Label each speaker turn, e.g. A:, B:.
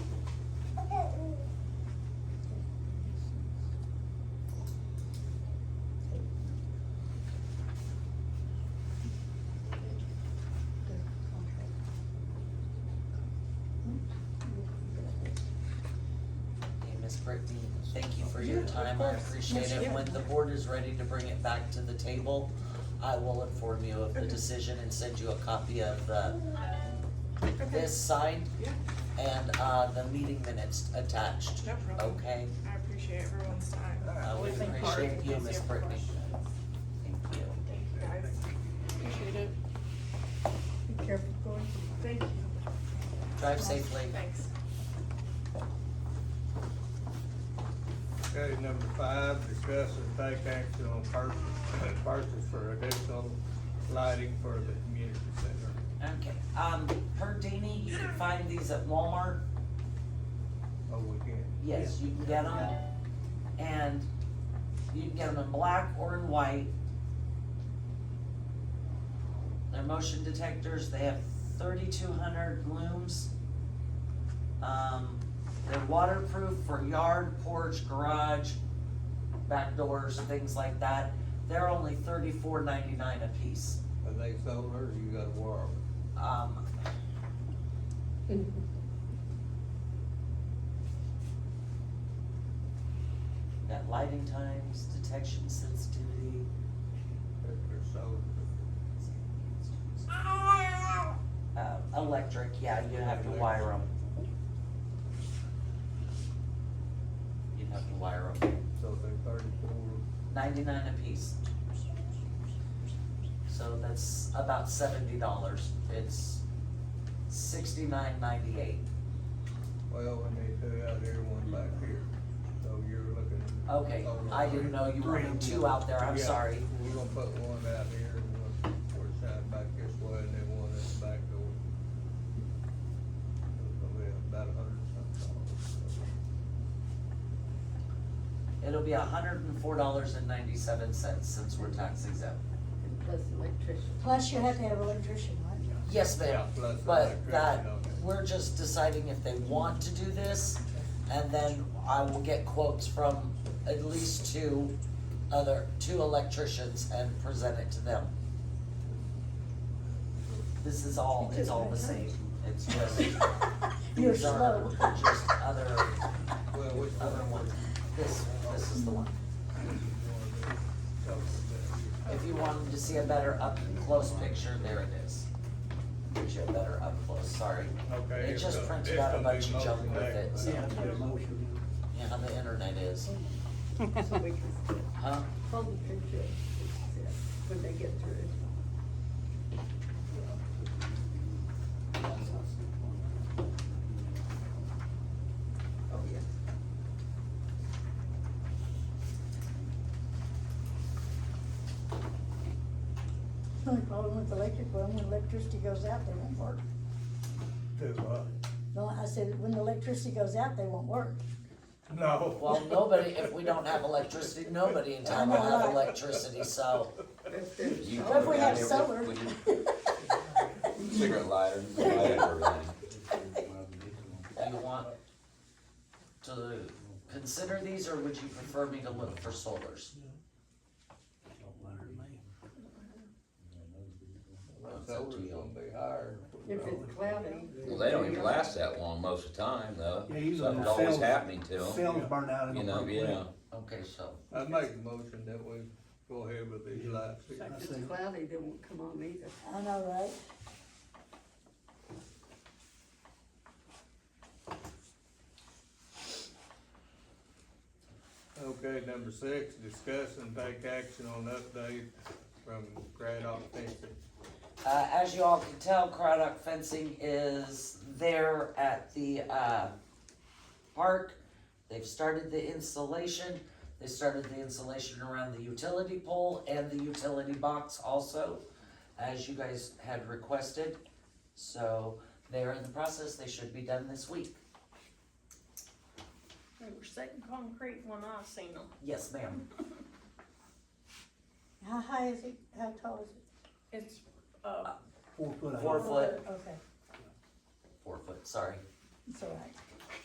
A: Brittany, thank you for your
B: Yeah, of
A: time, I
B: course.
A: appreciate
B: Yes,
A: it.
B: yeah.
A: When the board is ready to bring it back to the table, I will inform you of the
B: Okay. Oh,
A: decision and send you a copy of the,
B: Okay.
A: this signed
B: Yeah,
A: and, uh, the meeting minutes attached.
B: No problem.
A: Okay,
B: I appreciate everyone's time.
A: I would appreciate you, Miss Brittany. Thank you.
B: Thank you, guys. Appreciate it.
C: Be careful going.
B: Thank you.
A: Drive safely.
B: Thanks.
D: Okay, number five, discuss and take action on purchase, purchase for additional lighting for the community center.
A: Okay, um, per Dini, you can find these at Walmart,
D: Oh, we can.
A: yes, you can get them. And you can get them in black or in white. They're motion detectors, they have thirty-two hundred looms. Um, they're waterproof for yard, porch, garage, back doors, things like that. They're only thirty-four ninety-nine a piece.
D: Are they solar or you gotta wire them?
A: Um, got lighting times, detection sensitivity.
D: If they're solar.
A: Uh, electric, yeah, you have to wire them. You'd have to wire them,
D: So they're thirty-four,
A: ninety-nine apiece. So that's about seventy dollars, it's sixty-nine ninety-eight.
D: well, we need two out here, one back here. So you're looking. at
A: Okay,
D: solar
A: I didn't know you
D: three.
A: wanted two out there, I'm
D: Yeah,
A: sorry.
D: We're gonna put one out here, and one towards side back this way, and then one at the back door. It's gonna be about a hundred and something dollars.
A: It'll be hundred and four dollars and ninety-seven cents since we're tax exempt.
E: Plus electrician.
C: Plus you have to have an electrician, right?
A: Yes,
D: Yeah,
A: ma'am,
D: plus
A: but
D: electricity
A: that,
D: on it.
A: we're just deciding if they want to do this, and then I will get quotes from at least two other, two electricians and present it to them. This is all, it's all the same, it's just.
C: You're
A: these are
C: slow.
A: Just other,
D: Well, which
A: other
D: one?
A: one, this, this is the one. If you wanted to see a better up-close picture, there it is. Gives you a better up-close, sorry.
D: Okay.
A: It
D: it's
A: just
D: gonna-
A: prints
D: it's
A: out a
D: gonna be
A: bunch of junk
D: mostly
A: with it, so-
D: that, but-
A: Yeah, how the internet is,
E: So we can see it.
A: huh?
E: Hold the picture, up, we can see it when they get through. Oh, yeah.
C: The only problem with electric, well, when electricity goes out, they won't work.
D: Too much.
C: No, I said, when the electricity goes out, they won't work.
D: No.
A: Well, nobody, if we don't have electricity, nobody in town will have electricity, so.
E: If there's
F: You
C: Or if we
F: Yeah,
C: have
F: it would-
C: solar.
F: would Cigarette lighter, you can light everything.
A: Do you want to consider these, or would you prefer me to look for solars? It's up
D: Solar's
A: to
D: gonna
A: you.
D: be higher.
E: If it's cloudy.
F: Well, they don't even last that long most of the time, though.
G: Yeah, usually
F: Something's
G: they'll
F: always
G: fail-
F: happening to them,
G: Films burn out in
F: you
G: the.
F: know, yeah.
A: Okay, so,
D: I make a motion that we go ahead with these lights. here.
E: If it's cloudy, they won't come on either.
C: I know, right?
D: Okay, number six, discuss and take action on update from Craddock fencing.
A: uh, as you all can tell, Craddock Fencing is there at the, uh, park. They've started the installation, they started the installation around the utility pole and the utility box also, as you guys had requested. So, they are in the process, they should be done this week.
H: They were setting concrete when I seen them.
A: Yes, ma'am.
C: How high is it? How tall is it?
H: It's, uh,
G: Four foot.
A: Four
G: high.
A: foot,
C: Okay,
A: four foot, sorry.
C: it's all right.